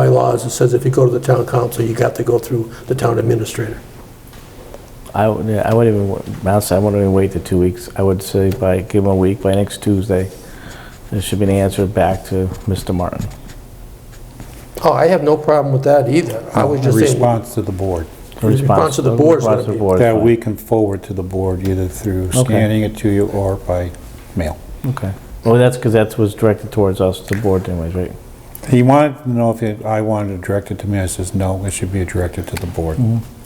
bylaws, it says if you go to the town council, you got to go through the town administrator. I would, yeah, I wouldn't even, wa- honestly, I wouldn't even wait the two weeks. I would say by, give them a week, by next Tuesday, there should be an answer back to Mr. Martin. Oh, I have no problem with that either. I was just A saying, response to the board, A Response to the a board is response gonna to the be- board is that fine. we can forward to the board either through Okay. scanning it to you or by mail. Okay. Well, that's because that was directed towards us, the board anyways, right? He wanted to know if it- I wanted to direct it to me, I says, no, it should be directed to the board.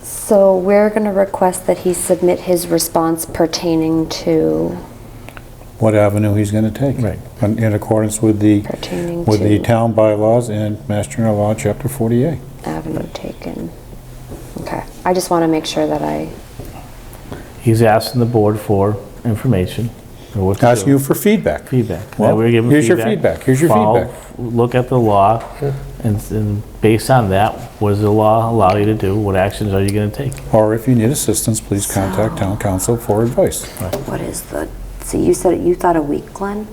So we're going to request that he submit his response pertaining to, What avenue he's gonna take. Right. In in accordance with the, pertaining with the to town bylaws and Master General Law, Chapter 48. avenue taken. Okay, I just want to make sure that I, He's asking the board for information. or what to Ask do. you for feedback. Feedback. Well, Now, we're giving here's your feedback. Here's your Follow- feedback. Look at the law, and, and based on that, what does the law allow you to do? What actions are you going to take? Or if you need assistance, please Oh. contact town council for advice. what is the, so you said, you thought a week, Glenn?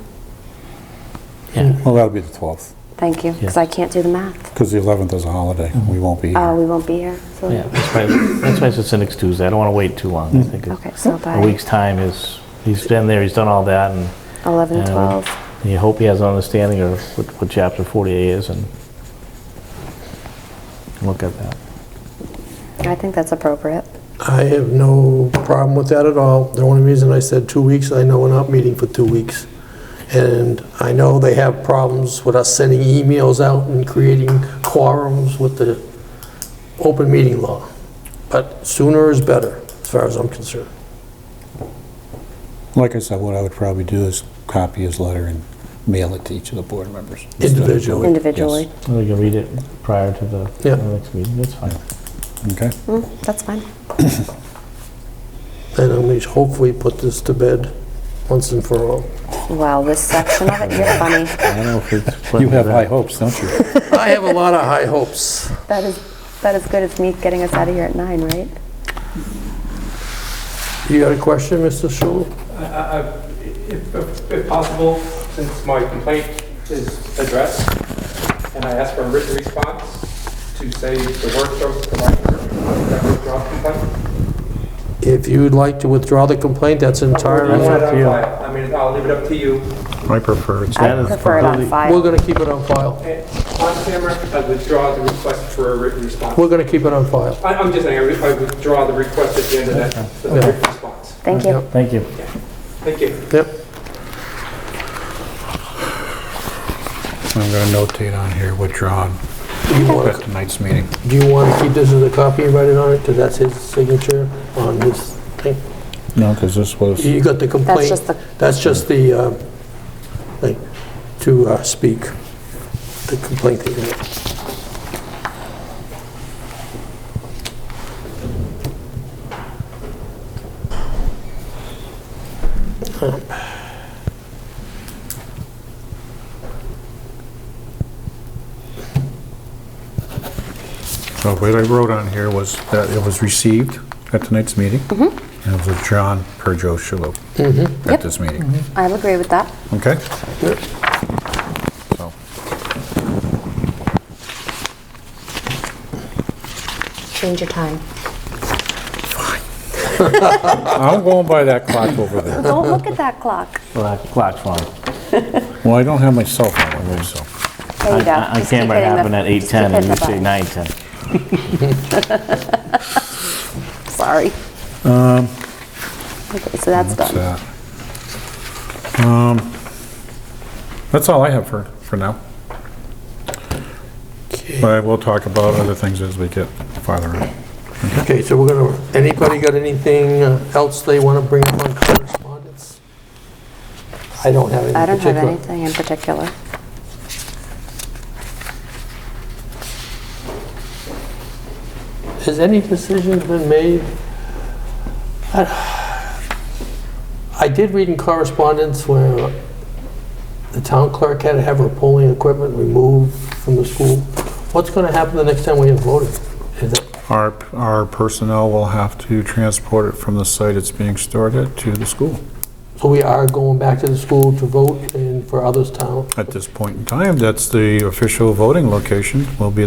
Yeah, Well, that'll be the 12th, Thank you, because Yeah. I can't do the math. because the 11th is a holiday. We won't be Oh, here. we won't be here, yeah, so, that's why, that's why it's just next Tuesday. I don't want to wait too long. I Mm. think it- okay, so a by week's time is, he's been there, he's done all that, and 11, and 12. you hope he has an understanding of what, what chapter 48 is, and look at that. I think that's appropriate. I have no problem with that at all. The only reason I said two weeks, I know we're not meeting for two weeks. And I know they have problems with us sending emails out and creating quorums with the open meeting law. But sooner is better, as far as I'm concerned. Like I said, what I would probably do is copy his letter and mail it to each of the board members. Individually. Individually. Well, you can read it prior to the Yeah. the next meeting, that's fine. Yes, Okay. Mm, That's fine. And at least hopefully put this to bed once and for all. Wow, this section of it, you're funny. I don't know if it's. You have high hopes, don't you? I have a lot of high hopes. That is, that is good as me getting us out of here at 9, right? You got a question, Mr. Schul? I- I- I- Uh, If if- if possible, since my complaint is addressed, and I asked for a written response to say the work of the library, that withdrawal complaint. If you'd like to withdraw the complaint, that's Or do you entirely, want it up to you. on file? I mean, I'll leave it up to you. I prefer it's I prefer it on we're file. going to keep it on file. And Eh, On camera, I withdraw the request for a written response. We're going to keep it on file. I- I'm just saying, I re- I withdraw the request at the end of that, for the Yeah. written response. Thank you. Yep, Thank you. Thank you. Yep. I'm going to notate on here withdrawn Do you at want to, tonight's meeting. do you want to keep this as a copy and write it on it? Because that's his signature on his thing. No, because this was, You got the That's complaint. just the, That's just the, um, thing, to uh, speak, the complaint that you have. so what I wrote on here was that it was received at tonight's meeting. And it was withdrawn per Joe Shulo at Mm-hmm. Yep. this meeting. I'll agree with that. Okay? Yep. So, Change your time. I'm going by that clock over there. Don't look at that clock. Well, that Clock's fine. Well, I don't have my cell phone with me, so. There you go. On Just keep camera, it hitting the- happened at just keep 8:10, and you hitting the say button. 9:10. Sorry. Um, Okay, so that's That's done. that. Um, That's all I have for, for now. But we'll talk about other things as we get farther in. Okay, so we're going to, anybody got anything uh, else they want to bring up on correspondence? I don't have any I don't have particular. anything in particular. Has any decision been made? I I did read in correspondence where the town clerk had to have her polling equipment removed from the school. What's going to happen the next time we have voting? Is that- Our, our personnel will have to transport it from the site it's being stored at to the school. So we are going back to the school to vote and for others town? At this point in time, that's the official voting location, will be